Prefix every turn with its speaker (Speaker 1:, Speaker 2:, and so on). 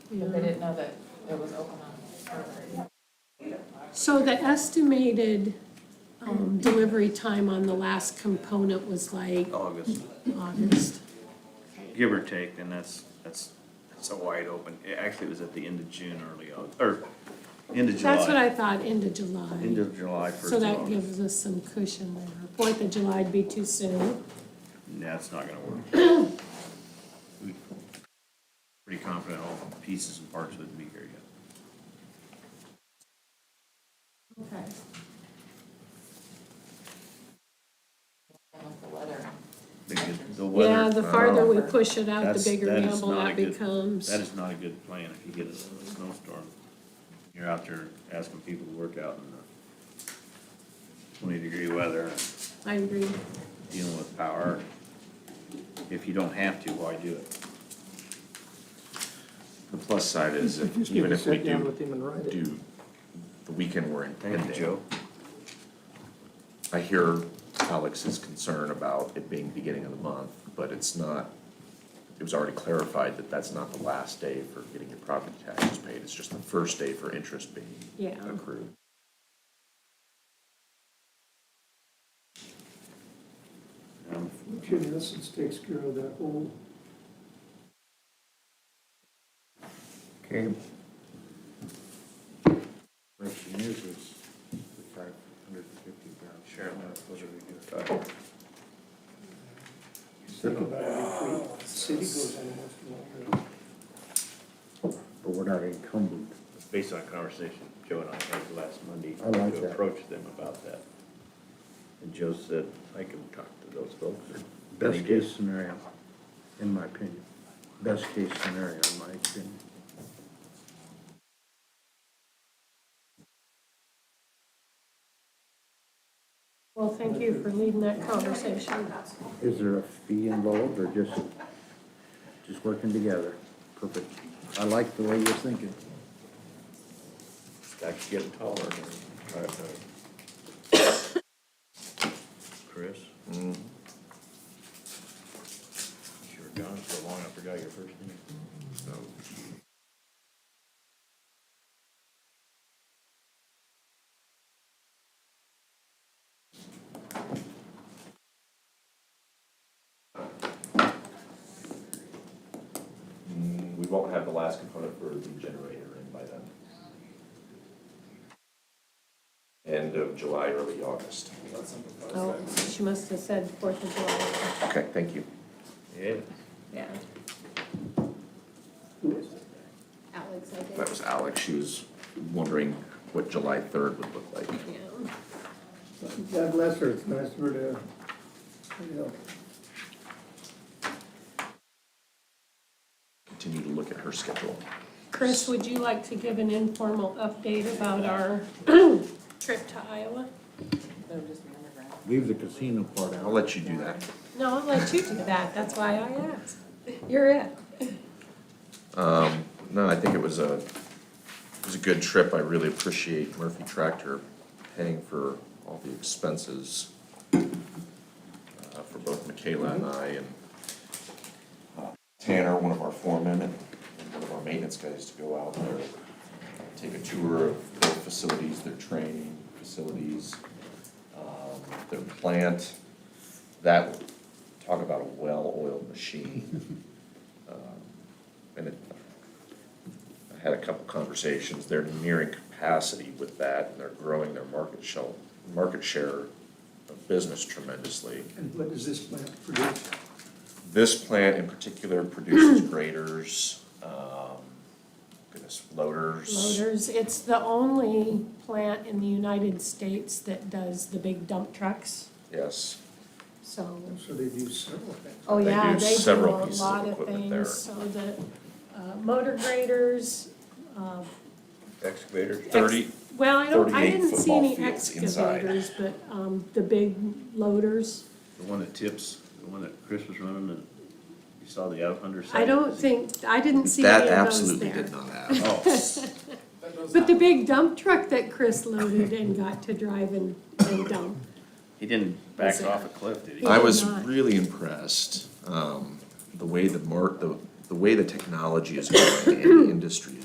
Speaker 1: But they didn't know that it was open on Thursday.
Speaker 2: So the estimated um, delivery time on the last component was like
Speaker 3: August,
Speaker 2: August.
Speaker 3: give or take, and that's, that's, that's a wide open, it actually was at the end of June, early August, or end of July.
Speaker 2: That's what I thought, end of July.
Speaker 3: End of July, first
Speaker 2: So
Speaker 3: of
Speaker 2: that
Speaker 3: August.
Speaker 2: gives us some cushion there. Fourth of July'd be too soon.
Speaker 3: Nah, it's not gonna work. We- Pretty confident all the pieces and parts wouldn't be here yet.
Speaker 1: Okay. With the weather.
Speaker 3: The good- The weather.
Speaker 2: Yeah, the farther we push it out, the
Speaker 3: That's-
Speaker 2: bigger
Speaker 3: that is
Speaker 2: gamble
Speaker 3: not a
Speaker 2: that
Speaker 3: good-
Speaker 2: becomes.
Speaker 3: That is not a good plan if you get a snowstorm. You're out there asking people to work out in the twenty-degree weather,
Speaker 2: I agree.
Speaker 3: dealing with power. If you don't have to, why do it?
Speaker 4: The plus side is if-
Speaker 5: Just need
Speaker 4: even
Speaker 5: to
Speaker 4: if we
Speaker 5: sit down
Speaker 4: do,
Speaker 5: with him and write it.
Speaker 4: do the weekend we're in
Speaker 3: Thank you, Joe.
Speaker 4: I hear Alex's concern about it being beginning of the month, but it's not, it was already clarified that that's not the last day for getting your property taxes paid. It's just the first day for interest being
Speaker 2: Yeah.
Speaker 4: accrued.
Speaker 3: Um,
Speaker 5: Jim Essence takes care of that whole,
Speaker 6: Okay. Question is, is the five hundred and fifty pounds.
Speaker 3: Sure.
Speaker 6: What are we
Speaker 3: uh,
Speaker 6: doing?
Speaker 5: think about it every week. The city goes in once
Speaker 6: But we're not encumbered.
Speaker 3: Based on a conversation Joe and I had last Monday.
Speaker 6: I like
Speaker 3: To
Speaker 6: that.
Speaker 3: approach them about that. And Joe said, I can talk to those folks. And he
Speaker 6: Best
Speaker 3: did.
Speaker 6: case scenario, in my opinion. Best case scenario, in my opinion.
Speaker 2: Well, thank you for leading that conversation.
Speaker 6: Is there a fee involved or just, just working together? Perfect. I like the way you're thinking.
Speaker 3: Stacks getting taller. All right, all right. Chris? You were gone so long, I forgot your first name. So.
Speaker 4: Mm, We won't have the last component for the generator in by then. End of July, early August.
Speaker 2: Oh, she must have said Fourth of July.
Speaker 4: Okay, thank you.
Speaker 3: Yeah.
Speaker 1: Yeah.
Speaker 5: in a while.
Speaker 1: Alex, I
Speaker 4: That was Alex. She was wondering what July third would look like.
Speaker 1: Yeah.
Speaker 5: God bless her, it's nice of her to, you know,
Speaker 4: Continue to look at her schedule.
Speaker 2: Chris, would you like to give an informal update about our trip to Iowa?
Speaker 1: They would just be underground.
Speaker 6: Leave the casino part
Speaker 4: I'll
Speaker 6: out.
Speaker 4: let you do that.
Speaker 2: No, I'll let you do that, that's why I asked. You're it.
Speaker 4: Um, No, I think it was a, it was a good trip. I really appreciate Murphy Tractor paying for all the expenses uh, for both Michaela and I and uh, Tanner, one of our foremen, and and one of our maintenance guys to go out there, take a tour of their facilities, their training facilities, um, their plant. That, talk about a well-oiled machine. Um, And it, I had a couple conversations, they're nearing capacity with that, and they're growing their market shell, market share of business tremendously.
Speaker 5: and what does this plant produce?
Speaker 4: This plant in particular produces graders, um, goodness, loaders.
Speaker 2: Loaders, it's the only plant in the United States that does the big dump trucks,
Speaker 4: Yes,
Speaker 2: so.
Speaker 5: So they do several things.
Speaker 2: Oh,
Speaker 4: They
Speaker 2: yeah, they
Speaker 4: do
Speaker 2: do a
Speaker 4: several pieces of
Speaker 2: lot of
Speaker 4: equipment there.
Speaker 2: things, so the uh, motor graders, uh,
Speaker 3: Excavator.
Speaker 2: ex-
Speaker 4: thirty,
Speaker 2: Well, I don't, I
Speaker 4: 38
Speaker 2: didn't see any
Speaker 4: football fields inside.
Speaker 2: excavators, but, um, the big loaders.
Speaker 3: The one that tips, the one that Chris was running, and you saw the out under side.
Speaker 2: I don't think, I didn't see
Speaker 4: that
Speaker 2: any of those
Speaker 4: absolutely
Speaker 2: E there.
Speaker 4: did not happen.
Speaker 3: Oh,
Speaker 2: But the big dump truck that Chris loaded and got to drive and, and dump.
Speaker 3: he didn't
Speaker 2: Was
Speaker 3: back
Speaker 2: it-
Speaker 3: off a cliff, did he?
Speaker 2: He
Speaker 4: I
Speaker 2: did
Speaker 4: was
Speaker 2: not.
Speaker 4: really impressed, um, the way the mark, the, the way the technology is going and the industry